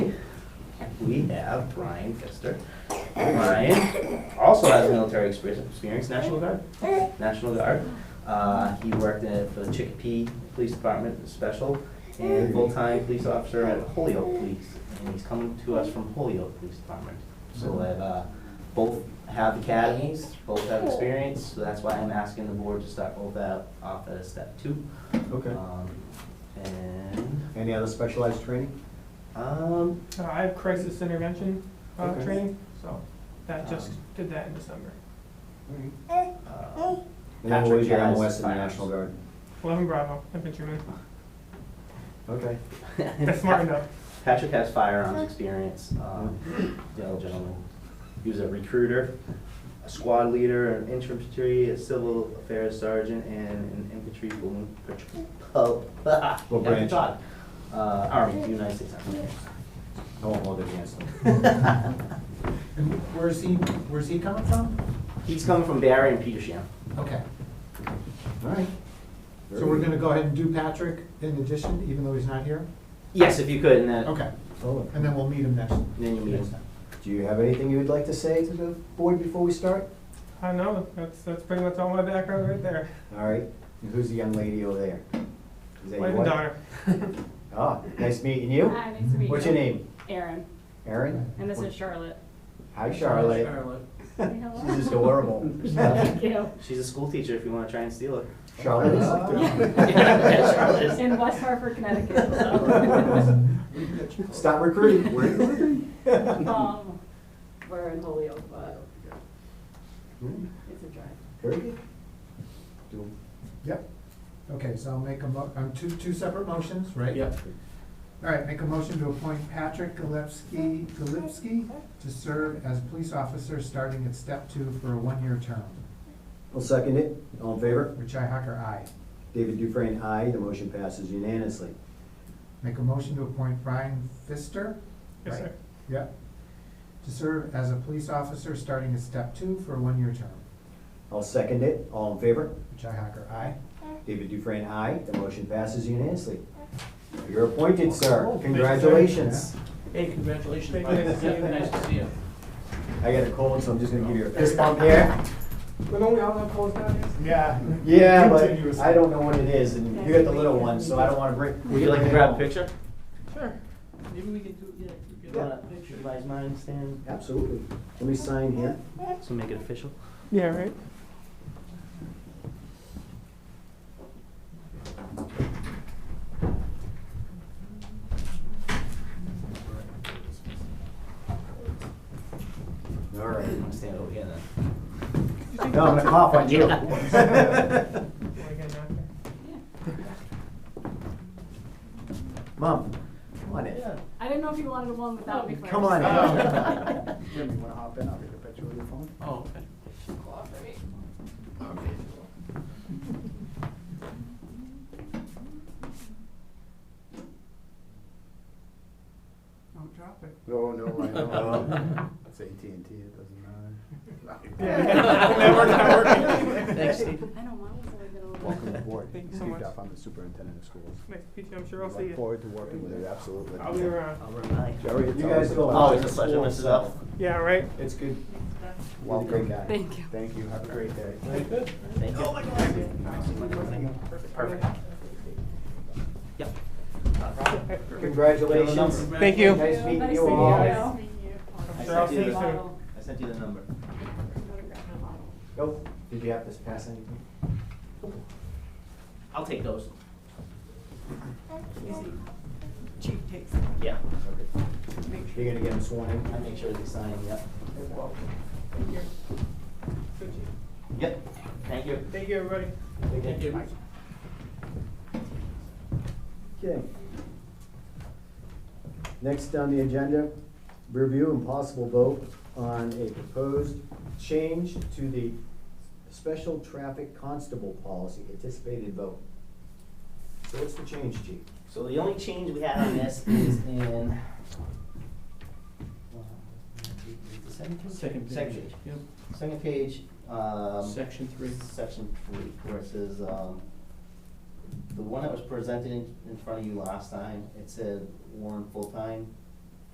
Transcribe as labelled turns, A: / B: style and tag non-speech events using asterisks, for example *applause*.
A: we have Brian Pfister. Brian also has military experience, experience, National Guard, National Guard. Uh, he worked in, for the Chicopee Police Department Special and full-time police officer at Holyoke Police. And he's coming to us from Holyoke Police Department. So that, uh, both have academies, both have experience, so that's why I'm asking the board to start both out, off at a step two.
B: Okay.
A: Um, And,
B: Any other specialized training?
A: um,
C: Uh, I have crisis intervention uh,
B: Okay.
C: training, so that just
A: Um,
C: did that in December.
A: uh,
B: And then
A: Patrick
B: what was your
A: has
B: MOS in the
A: firearms.
B: *laughs* National Guard?
C: Eleven Bravo infantryman.
B: Okay.
C: *laughs* That's smart enough.
A: Patrick has firearms experience, um, the other gentleman. He was a recruiter, a squad leader, an infantry, a civil affairs sergeant, and an infantry balloon patr- *laughs* oh,
B: What
A: never
B: branch?
A: thought. Uh, Army, United States Army.
B: I won't hold it
D: *laughs*
B: against them.
D: And where's he, where's he coming from?
A: He's coming from Barry and Petersham.
D: Okay,
B: All right.
D: so we're gonna go ahead and do Patrick in addition, even though he's not here?
A: Yes, if you could, and then,
D: Okay,
B: Roland,
D: and then we'll meet him next. *laughs*
A: then you meet
D: next
A: him.
D: time.
B: Do you have anything you would like to say to the board before we start?
C: I know, that's, that's pretty much all my background right there.
B: All right. And who's the young lady over there? Is that your
C: Wife and
B: wife?
C: daughter.
B: Ah, nice meeting you.
E: Hi, nice to meet you.
B: What's your name?
E: Erin,
B: Erin?
E: and this is
B: *laughs*
E: Charlotte.
B: Hi, Charlotte. *laughs* She's just adorable.
E: *laughs*
B: *laughs*
E: Thank you.
A: She's a school teacher if you wanna try and steal her.
B: Charlotte *laughs* is.
A: Yeah, Charlotte is.
E: *laughs* In West Hartford,
B: *laughs*
E: Connecticut. *laughs* so.
D: Charlotte.
B: Stop recruiting. We're recruiting.
E: Um, We're in Holyoke, but it's a drive.
B: Very good. Do-
D: Yep, okay, so I'll make a mo, um, two, two separate motions, right? Yep. All right, make a motion to appoint Patrick Galipski, Galipski to serve as police officer starting at step two for a one-year term.
B: I'll second it. All in favor?
D: Richi Hacker, aye.
B: David Dufresne, aye. The motion passes unanimously.
D: Make a motion to appoint Brian Pfister.
C: Yes,
D: right?
C: sir.
D: Yep. To serve as a police officer starting at step two for a one-year term.
B: I'll second it. All in favor?
D: Richi Hacker, aye.
B: David Dufresne, aye. The motion passes unanimously. You're appointed, sir. Congratulations.
F: Hey, congratulations,
C: Thank
F: Mike.
C: you.
F: Nice to see you.
B: I got a cold, so I'm just gonna give you a fist bump here.
C: But don't we all have closed nowadays?
D: Yeah.
B: Yeah, but I don't know what it is, and you got the little one, so I don't wanna bring.
A: Would you like to grab a picture?
F: Sure. Maybe we could do, yeah, get
B: Yeah.
F: a picture.
A: You guys mind standing?
B: Absolutely. Let me sign here.
A: So make it official.
C: Yeah, right.
B: All right.
A: I'm gonna stand over here then.
B: No, I'm gonna cough
F: *laughs*
B: on *laughs* you.
C: Am I getting out there?
B: Mom, come on in.
E: I didn't know if you wanted one without me first. Oh.
B: Come on in. *laughs*
G: Jim, you wanna hop in? I'll get a picture with your phone.
F: Oh, okay.
C: Don't drop *laughs* it.
G: No, no, I *laughs*
B: Oh.
G: know. Um, It's AT&T, it doesn't matter.
C: Never, never.
F: Thanks, Steve.
E: I know, mine was like a little.
G: Welcome aboard.
C: Thank you so
G: Steve
C: much.
G: Duff, I'm the superintendent of schools.
C: Nice to meet you, I'm sure I'll see
G: Look
C: you.
G: forward to working with you, absolutely.
C: I'll be around.
A: I'll remind you.
G: Jerry, it's
B: You guys go.
A: Oh,
B: out
A: it's a
B: to
A: pleasure,
B: school,
A: Mrs.
B: so
A: Elf.
C: Yeah, right?
B: It's good.
G: Welcome.
B: Great guy.
E: Thank you.
G: Thank you, have a great day.
A: Thank
F: Oh
A: you. Perfect. Yep.
B: Congratulations.
C: Thank you.
B: Nice
E: Nice
B: meeting
E: to
B: you
E: meet
B: all.
A: I
C: Sure, I'll
A: sent
C: see
A: you
C: you
A: the,
C: soon.
E: Bottle.
A: I sent you the number.
B: Nope. Did you have this pass anything?
A: I'll take those.
E: Easy.
A: Yeah.
B: You're gonna get him sworn
A: I
B: in?
A: make sure they sign, yep. Yep. Thank you.
C: Thank you, everybody.
F: Thank you.
B: Okay. Next on the agenda, review and possible vote on a proposed change to the special traffic constable policy, anticipated vote. So what's the change, chief?
A: So the only change we had on this is in. uh, the second page?
F: Second page.
A: Second page.
F: Yep.
A: Second page, um.
F: Section three.
A: Section three, where it says, um, the one that was presented in, in front of you last time, it said Warren full-time,